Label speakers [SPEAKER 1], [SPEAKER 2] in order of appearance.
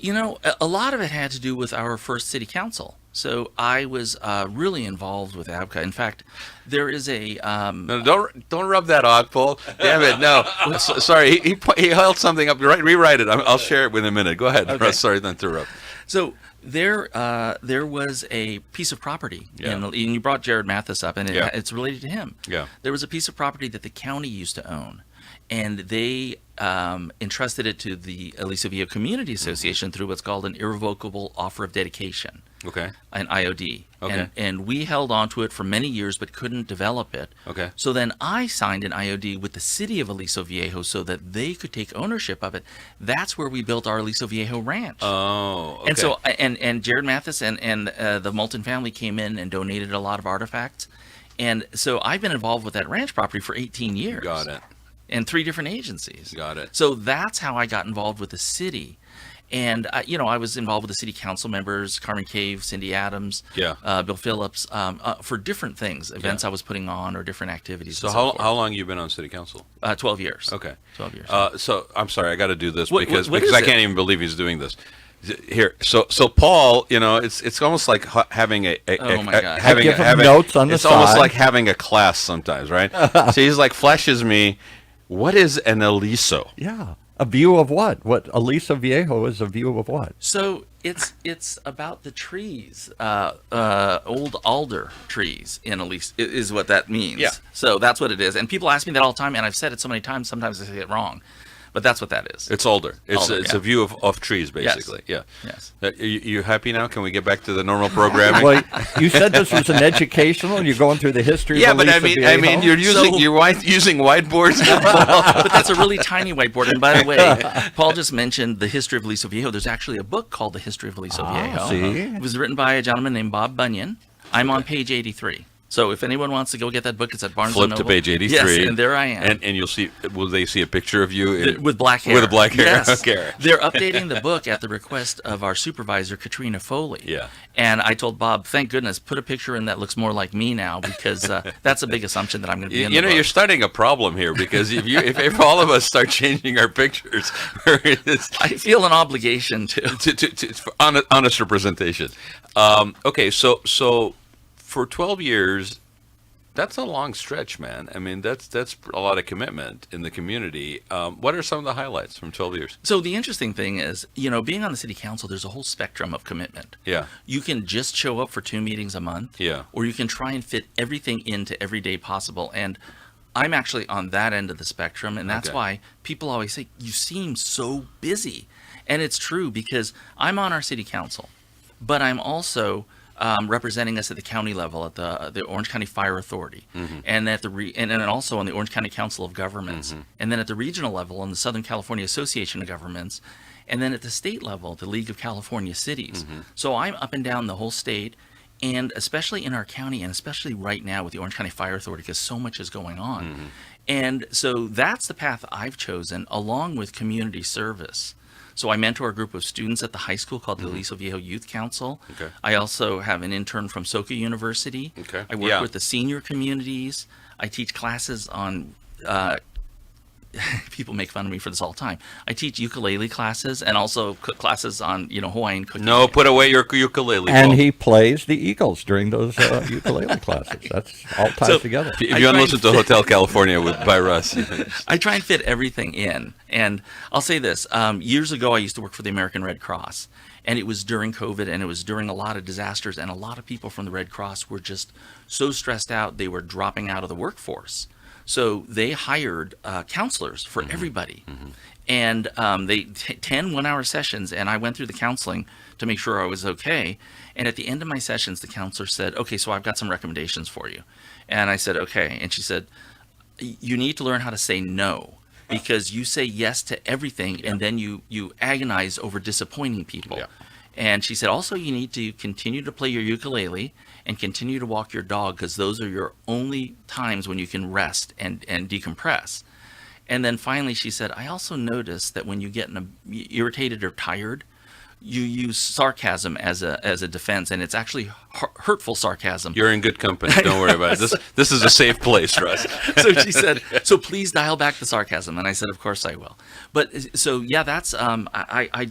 [SPEAKER 1] You know, a- a lot of it had to do with our first city council. So I was uh, really involved with ABCA. In fact, there is a um,
[SPEAKER 2] No, don't don't rub that off, Paul. Damn it, no. S- sorry, he, he po- he held something up. Right, rewrite it. I'm, I'll share it with a minute. Go ahead.
[SPEAKER 1] Okay.
[SPEAKER 2] Sorry to interrupt.
[SPEAKER 1] so there uh, there was a piece of property,
[SPEAKER 2] Yeah.
[SPEAKER 1] and, and you brought Jared Mathis up, and it,
[SPEAKER 2] Yeah.
[SPEAKER 1] it's related to him.
[SPEAKER 2] Yeah.
[SPEAKER 1] There was a piece of property that the county used to own, and they um, entrusted it to the Aliso Villa Community
[SPEAKER 2] Mm-hmm.
[SPEAKER 1] Association through what's called an irrevocable offer of dedication.
[SPEAKER 2] Okay.
[SPEAKER 1] an IOD.
[SPEAKER 2] Okay.
[SPEAKER 1] And, and we held on to it for many years but couldn't develop it.
[SPEAKER 2] Okay.
[SPEAKER 1] So then I signed an IOD with the city of Aliso Viejo so that they could take ownership of it. That's where we built our Aliso Viejo ranch.
[SPEAKER 2] Oh. Okay.
[SPEAKER 1] And so and and Jared Mathis and and uh, the Moulton family came in and donated a lot of artifacts. And so I've been involved with that ranch property for 18 years.
[SPEAKER 2] got it.
[SPEAKER 1] And three different agencies.
[SPEAKER 2] Got it.
[SPEAKER 1] So that's how I got involved with the city. And, uh, you know, I was involved with the city council members, Carmen Cave, Cindy Adams,
[SPEAKER 2] Yeah.
[SPEAKER 1] uh, Bill Phillips, um, uh, for different things, events I was putting on or different activities.
[SPEAKER 2] So
[SPEAKER 1] and
[SPEAKER 2] how
[SPEAKER 1] forth.
[SPEAKER 2] how long you been on city council?
[SPEAKER 1] Uh, 12 years.
[SPEAKER 2] Okay.
[SPEAKER 1] 12 years.
[SPEAKER 2] Uh, so I'm sorry, I got to do this
[SPEAKER 1] What-
[SPEAKER 2] because
[SPEAKER 1] what- what
[SPEAKER 2] because
[SPEAKER 1] is
[SPEAKER 2] I
[SPEAKER 1] it?
[SPEAKER 2] can't even believe he's doing this. Z- Here, so so Paul, you know, it's it's almost like ha- having a, a-
[SPEAKER 1] Oh
[SPEAKER 2] a-
[SPEAKER 1] my
[SPEAKER 2] a-
[SPEAKER 1] God.
[SPEAKER 2] having
[SPEAKER 3] I give him
[SPEAKER 2] having-
[SPEAKER 3] notes on the
[SPEAKER 2] It's almost
[SPEAKER 3] side.
[SPEAKER 2] like having a class sometimes, right? so he's like flashes me, what is an Eliso?
[SPEAKER 3] Yeah. A view of what? What Elisa Viejo is a view of what?
[SPEAKER 1] So it's it's about the trees, uh, uh, old alder trees in Elise i- is what that means.
[SPEAKER 2] Yeah.
[SPEAKER 1] So that's what it is, and people ask me that all the time, and I've said it so many times. Sometimes I say it wrong, but that's what that is.
[SPEAKER 2] It's older. It's
[SPEAKER 1] Alder,
[SPEAKER 2] it's
[SPEAKER 1] yeah.
[SPEAKER 2] a view of, of trees, basically. Yeah.
[SPEAKER 1] Yes.
[SPEAKER 2] Uh, you, you happy now? Can we get back to the normal programming?
[SPEAKER 3] Well, you said this was an educational. You're going through the history.
[SPEAKER 2] yeah,
[SPEAKER 3] of
[SPEAKER 2] but I
[SPEAKER 3] Elisa
[SPEAKER 2] mean, I
[SPEAKER 3] Viejo?
[SPEAKER 2] mean, you're using
[SPEAKER 1] So-
[SPEAKER 2] you're white, using whiteboards. now?
[SPEAKER 1] but that's a really tiny whiteboard. And by the way, Paul just mentioned the history of Aliso Viejo. There's actually a book called The History of Aliso Viejo.
[SPEAKER 2] Ah,
[SPEAKER 3] see?
[SPEAKER 1] It was written by a gentleman named Bob Bunyan. I'm on page 83. So if anyone wants to go get that book, it's at Barnes
[SPEAKER 2] Flip
[SPEAKER 1] and
[SPEAKER 2] to
[SPEAKER 1] Noble.
[SPEAKER 2] page eighty-three.
[SPEAKER 1] Yes, and there I am.
[SPEAKER 2] And, and you'll see. Will they see a picture of you
[SPEAKER 1] Th-
[SPEAKER 2] in-
[SPEAKER 1] with black hair.
[SPEAKER 2] With a black hair.
[SPEAKER 1] Yes.
[SPEAKER 2] Okay.
[SPEAKER 1] They're updating the book at the request of our supervisor, Katrina Foley.
[SPEAKER 2] Yeah.
[SPEAKER 1] And I told Bob, thank goodness, put a picture in that looks more like me now because uh, that's a big assumption that I'm going to be
[SPEAKER 2] You,
[SPEAKER 1] in
[SPEAKER 2] you
[SPEAKER 1] the
[SPEAKER 2] know, you're
[SPEAKER 1] book.
[SPEAKER 2] starting a problem here because if you if, if all of us start changing our pictures, it's-
[SPEAKER 1] I feel an obligation to.
[SPEAKER 2] to, to, to for honest, honest representation. Um, okay, so so for 12 years, that's a long stretch, man. I mean, that's that's a lot of commitment in the community. Um, what are some of the highlights from 12 years?
[SPEAKER 1] So the interesting thing is, you know, being on the city council, there's a whole spectrum of commitment.
[SPEAKER 2] Yeah.
[SPEAKER 1] You can just show up for two meetings a month.
[SPEAKER 2] Yeah.
[SPEAKER 1] Or you can try and fit everything into every day possible. And I'm actually on that end of the spectrum. And that's
[SPEAKER 2] Okay.
[SPEAKER 1] why people always say, you seem so busy. And it's true because I'm on our city council, but I'm also um, representing us at the county level, at the the Orange County Fire Authority, and at the re- and, and also on the Orange County Council of Governments, and then at the regional level on the Southern California Association of Governments, and then at the state level, the League of California Cities. So I'm up and down the whole state, and especially in our county, and especially right now with the Orange County Fire Authority, because so much is going on. And so that's the path I've chosen, along with community service. So I mentor a group of students at the high school called the Aliso Viejo Youth Council.
[SPEAKER 2] Mm-hmm. Okay.
[SPEAKER 1] I also have an intern from Soka University.
[SPEAKER 2] Okay.
[SPEAKER 1] I work
[SPEAKER 2] Yeah.
[SPEAKER 1] with the senior communities. I teach classes on. Uh, people make fun of me for this all the time. I teach ukulele classes and also cook classes on you know Hawaiian cooking.
[SPEAKER 2] No, put away your ukulele.
[SPEAKER 3] And
[SPEAKER 2] Paul.
[SPEAKER 3] he plays the Eagles during those uh, ukulele classes. That's all ties
[SPEAKER 1] So-
[SPEAKER 3] together.
[SPEAKER 2] If
[SPEAKER 1] I
[SPEAKER 2] you
[SPEAKER 1] try
[SPEAKER 2] want to
[SPEAKER 1] and
[SPEAKER 2] listen to Hotel California with by Russ,
[SPEAKER 1] I try and fit everything in. And I'll say this um, years ago, I used to work for the American Red Cross, and it was during COVID and it was during a lot of disasters. And a lot of people from the Red Cross were just so stressed out, they were dropping out of the workforce. So they hired uh, counselors for everybody. And um, they t- 10 one hour sessions, and I went through the counseling to make sure I was okay. And at the end of my sessions, the counselor said, Okay, so I've got some recommendations for you. And I said, Okay. And she said, you need to learn how to say no because you say yes to everything and then you you agonize over disappointing people
[SPEAKER 2] Yeah.
[SPEAKER 1] and she said also you need to continue to play your ukulele and continue to walk your dog because those are your only times when you can rest and and decompress and then finally she said i also noticed that when you get in a, irritated or tired you use sarcasm as a as a defense and it's actually hu- hurtful sarcasm
[SPEAKER 2] you're in good company. Don't worry about it. This this is a safe place, Russ.
[SPEAKER 1] so she said, "So please dial back the sarcasm." And I said, "Of course I will." But so yeah, uh, that's um, I I